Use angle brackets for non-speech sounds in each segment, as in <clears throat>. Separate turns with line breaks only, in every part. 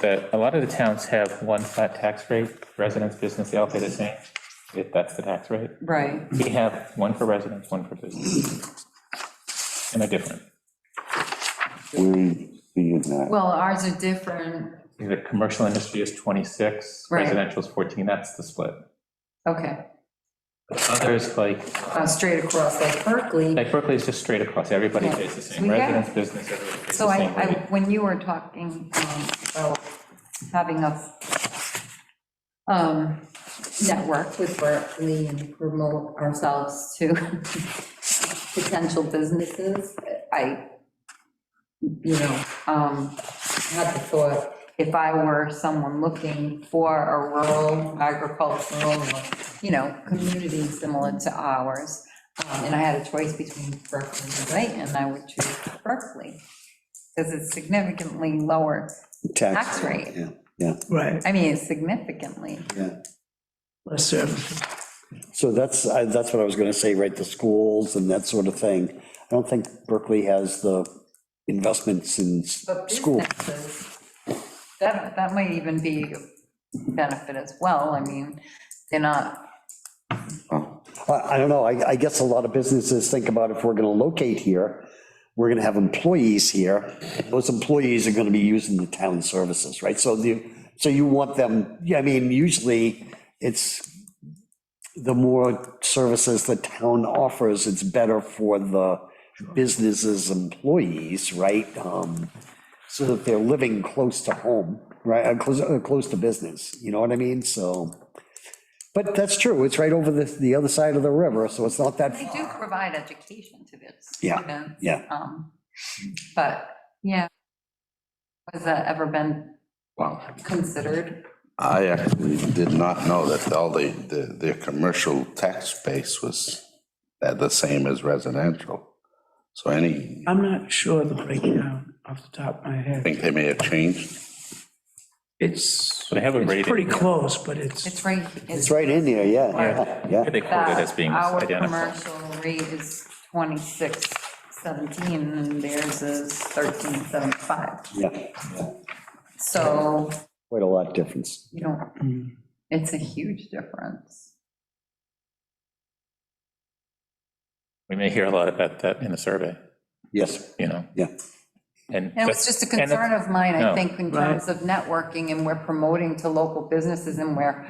that a lot of the towns have one flat tax rate, residents, business, they all pay the same, if that's the tax rate.
Right,
We have one for residents, one for business. And they're different.
We see it now.
well, ours are different,
The commercial industry is 26,
Right.
residential is 14, that's the split.
okay,
Others, like,
uh, straight across like Berkeley.
like Berkeley is just straight across, everybody
Yeah.
pays the same,
We have-
residents, business, everybody pays
So
the
I,
same
I,
rate.
when you were talking um, about having a um, network with Berkeley and promote ourselves to <laughs> potential businesses, I, you know, um, had the thought, if I were someone looking for a rural agricultural, you know, community similar to ours, um, and I had a choice between Berkeley and Dayton, I would choose Berkeley, because it's significantly lower. Tax rate.
Yeah, yeah,
Right,
I mean, it's significantly.
yeah.
less services.
So that's, I- that's what I was going to say, right, the schools and that sort of thing. I don't think Berkeley has the investments in s-
But
school.
businesses, that, that might even be a benefit as well. I mean, they're not,
I, I don't know, I, I guess a lot of businesses think about if we're going to locate here, we're going to have employees here. Those employees are going to be using the town services, right? So the, so you want them, yeah, I mean, usually it's, the more services the town offers, it's better for the businesses' employees, right? Um, So that they're living close to home, right, uh, close, uh, close to business, you know what I mean? So. But that's true, it's right over the, the other side of the river, so it's not that
they do provide education to their
Yeah,
students.
yeah.
um, But, yeah. Has that ever been
Wow.
considered?
I actually did not know that all the, the, their commercial tax base was at the same as residential. So any, I
I'm not sure the breakdown off the top of my head.
think they may have changed.
It's,
They have a
it's
rating.
pretty close, but it's,
It's right.
It's right in there, yeah,
Yeah.
yeah.
They quote it as being
Our
identical.
commercial rate is 2617 and theirs is 1375.
Yeah,
So
quite a lot difference.
you don't, it's a huge difference.
We may hear a lot about that in the survey,
Yes,
you know,
yeah.
and.
And it was just a
and it's-
concern of mine, I
No.
think, in
Right.
terms of networking and we're promoting to local businesses and we're,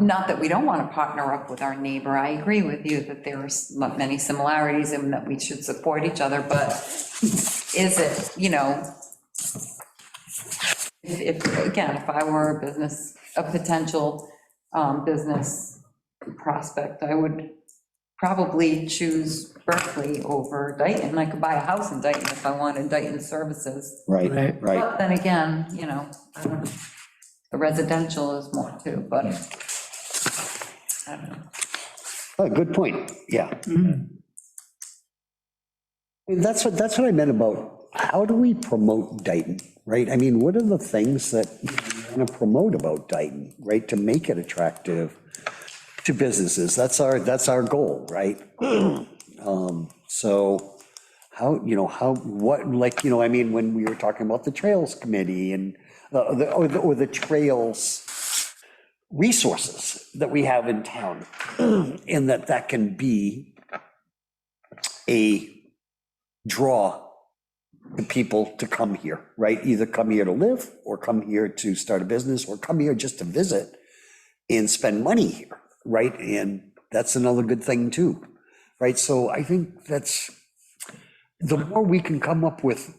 not that we don't want to partner up with our neighbor, I agree with you that there are s- many similarities and that we should support each other, but is it, you know, if, if, again, if I were a business, a potential um, business prospect, I would probably choose Berkeley over Dayton. I could buy a house in Dayton if I wanted Dayton services.
Right,
Right.
right.
But then again, you know, I don't know. the residential is more too, but I don't know.
Oh, good point, yeah. Mm-hmm. And That's what, that's what I meant about, how do we promote Dayton, right? I mean, what are the things that we want to promote about Dayton, right, to make it attractive to businesses? That's our, that's our goal, <clears throat> right? Um, So how, you know, how, what, like, you know, I mean, when we were talking about the Trails Committee and, uh, the- or the, or the Trails resources that we have in town, <clears throat> and that that can be a draw to people to come here, right? Either come here to live, or come here to start a business, or come here just to visit and spend money here, right? And that's another good thing too, right? So I think that's, the more we can come up with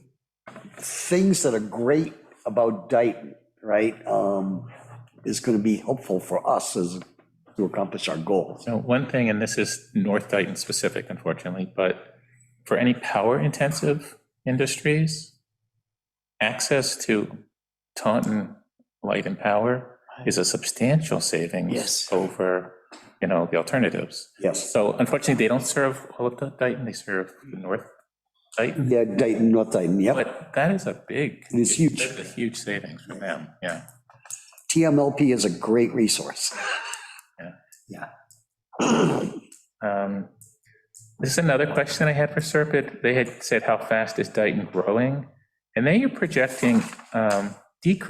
things that are great about Dayton, right? um, Is going to be helpful for us as, to accomplish our goals.
So one thing, and this is North Dayton specific, unfortunately, but for any power-intensive industries, access to Taunton Light and Power is a substantial savings.
Yes.
Over, you know, the alternatives.
Yes.
So unfortunately, they don't serve all of the Dayton, they serve North Dayton.
Yeah, Dayton, North Dayton, yep.
But that is a big.
It's huge.
that's a huge savings for them, yeah.
TMLP is a great resource.
Um, This is another question I had for Serpent. They had said, how fast is Dayton growing? And they are projecting um, decrease